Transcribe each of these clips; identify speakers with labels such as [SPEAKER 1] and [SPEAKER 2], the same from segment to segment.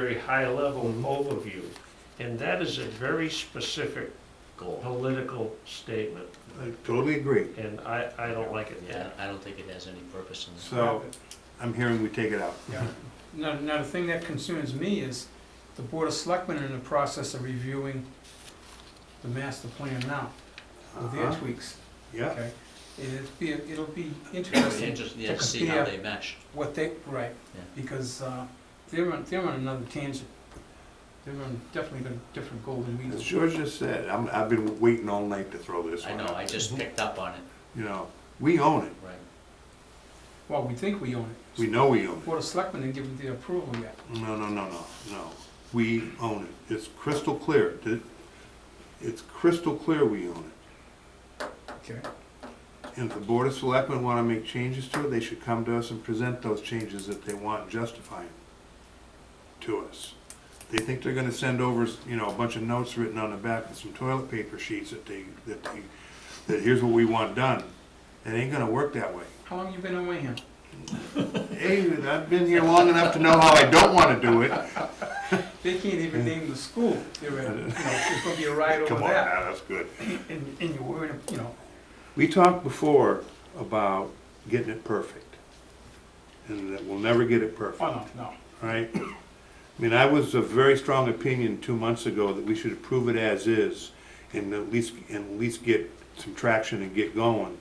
[SPEAKER 1] very high-level overview, and that is a very specific
[SPEAKER 2] goal.
[SPEAKER 1] political statement,
[SPEAKER 3] I totally agree.
[SPEAKER 1] and I, I don't like it.
[SPEAKER 2] Yeah, I don't think it has any purpose in the
[SPEAKER 3] So I'm hearing we take it out. Uh-huh.
[SPEAKER 4] Yeah. Now, now the thing that concerns me is the Board of Selectmen are in the process of reviewing the master plan now, with their
[SPEAKER 3] Uh-huh.
[SPEAKER 4] tweaks,
[SPEAKER 3] Yeah,
[SPEAKER 4] okay? And It'd be, it'll be
[SPEAKER 2] It'd be
[SPEAKER 4] interesting
[SPEAKER 2] interesting to see how they mesh.
[SPEAKER 4] what they, right,
[SPEAKER 2] Yeah.
[SPEAKER 4] because uh, they're on, they're on another tangent. They're on definitely a different goal than we
[SPEAKER 3] as
[SPEAKER 4] do.
[SPEAKER 3] George just said, I'm, I've been waiting all night to throw this
[SPEAKER 2] I
[SPEAKER 3] one
[SPEAKER 2] know, I
[SPEAKER 3] out.
[SPEAKER 2] just
[SPEAKER 5] Mm-hmm.
[SPEAKER 2] picked up on it,
[SPEAKER 3] You know, we own it.
[SPEAKER 2] right.
[SPEAKER 4] Well, we think we own it.
[SPEAKER 3] We know we own it.
[SPEAKER 4] Board of Selectmen didn't give it their approval yet.
[SPEAKER 3] No, no, no, no, no. We own it. It's crystal clear. Th- It's crystal clear we own it.
[SPEAKER 4] Okay.
[SPEAKER 3] And if the Board of Selectmen want to make changes to it, they should come to us and present those changes if they want justifying to us. They think they're gonna send over, you know, a bunch of notes written on the back with some toilet paper sheets that they, that they, that here's what we want done. It ain't gonna work that way.
[SPEAKER 4] How long you been in Wareham?
[SPEAKER 3] Hey, I've been here long enough to know how I don't wanna do it.
[SPEAKER 4] They can't even name the school. They're, at- you know, it's gonna be a ride over
[SPEAKER 3] Mm. Come on
[SPEAKER 4] that.
[SPEAKER 3] now, that's good.
[SPEAKER 4] And, and you're worried, you know,
[SPEAKER 3] We talked before about getting it perfect, and that we'll never get it perfect.
[SPEAKER 4] oh, no, no.
[SPEAKER 3] right? I mean, I was of very strong opinion two months ago that we should approve it as is and at least, and at least get some traction and get going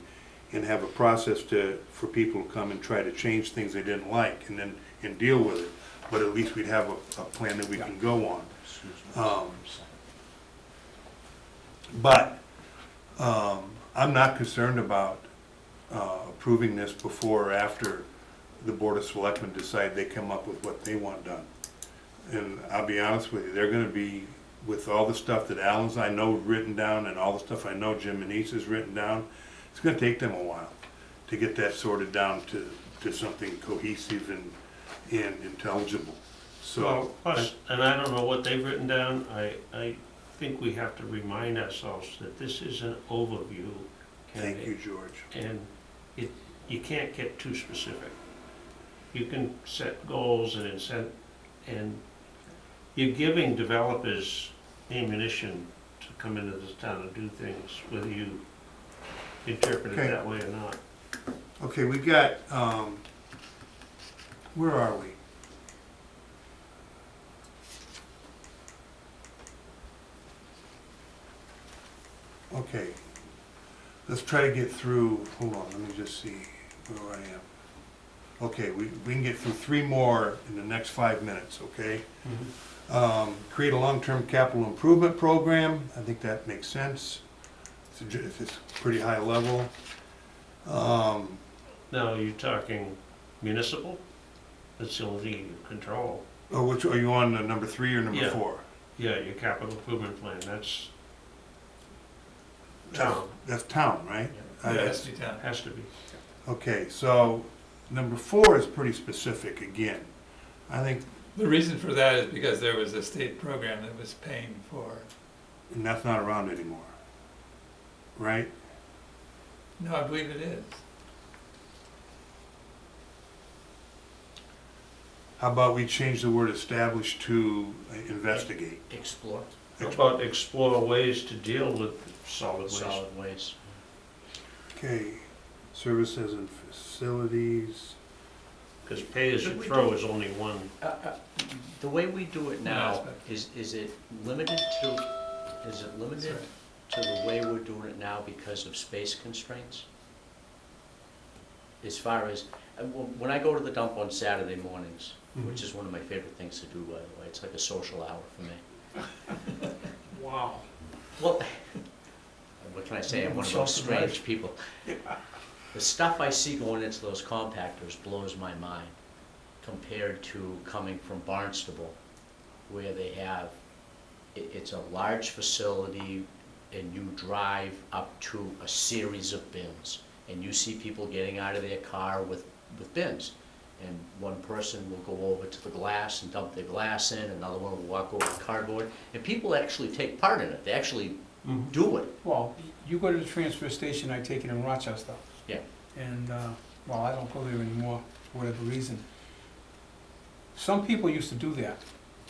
[SPEAKER 3] and have a process to, for people to come and try to change things they didn't like and then, and deal with it. But at least we'd have a, a plan that we can go on. Um, But, um, I'm not concerned about, uh, approving this before or after the Board of Selectmen decide they come up with what they want done. And I'll be honest with you, they're gonna be, with all the stuff that Alan's, I know, written down, and all the stuff I know Jim and has written down, it's gonna take them a while to get that sorted down to, to something cohesive and, and intelligible, so.
[SPEAKER 1] Plus, and I don't know what they've written down, I, I think we have to remind ourselves that this is an overview.
[SPEAKER 3] Thank
[SPEAKER 1] candidate,
[SPEAKER 3] you, George.
[SPEAKER 1] And it, you can't get too specific. You can set goals and incent, and you're giving developers ammunition to come into this town and do things, whether you interpret it
[SPEAKER 3] Okay.
[SPEAKER 1] that way or not.
[SPEAKER 3] Okay, we got, um, where are we? Okay, let's try to get through, hold on, let me just see where I am. Okay, we, we can get through three more in the next five minutes, okay? Um, create a long-term capital improvement program, I think that makes sense. It's, a ju- it's pretty high level. Um,
[SPEAKER 1] Now, are you talking municipal? That's the only thing you control.
[SPEAKER 3] Oh, which, are you on uh, number three or number
[SPEAKER 1] Yeah.
[SPEAKER 3] four?
[SPEAKER 1] Yeah, your capital improvement plan, that's town,
[SPEAKER 3] That's town, right? Uh, that's-
[SPEAKER 1] has to be.
[SPEAKER 3] Okay, so number four is pretty specific again. I think
[SPEAKER 5] The reason for that is because there was a state program that was paying for,
[SPEAKER 3] and that's not around anymore, right?
[SPEAKER 5] no, I believe it is.
[SPEAKER 3] How about we change the word establish to uh, investigate?
[SPEAKER 2] Explore
[SPEAKER 1] How about explore ways to deal with solid waste?
[SPEAKER 2] solid waste.
[SPEAKER 3] Okay, services and facilities.
[SPEAKER 1] Because pay as you throw is only one,
[SPEAKER 2] Uh, uh, The way we do it now, is, is it limited to, is it
[SPEAKER 5] That's
[SPEAKER 2] limited
[SPEAKER 5] right.
[SPEAKER 2] to the way we're doing it now because of space constraints? As far as, uh, wh- when I go to the dump on Saturday mornings,
[SPEAKER 5] Mm-hmm.
[SPEAKER 2] which is one of my favorite things to do, by the way, it's like a social hour for me.
[SPEAKER 4] Wow.
[SPEAKER 2] Well, what can I say? I'm one of those strange people. The stuff I see going into those compactors blows my mind compared to coming from Barnstable, where they have, it, it's a large facility and you drive up to a series of bins. And you see people getting out of their car with, with bins. And one person will go over to the glass and dump their glass in, another one will walk over to cardboard. And people actually take part in it, they actually do it.
[SPEAKER 4] Well, you go to the transfer station, I take it in Rochester.
[SPEAKER 2] Yeah.
[SPEAKER 4] And, uh, well, I don't go there anymore for whatever reason. Some people used to do that.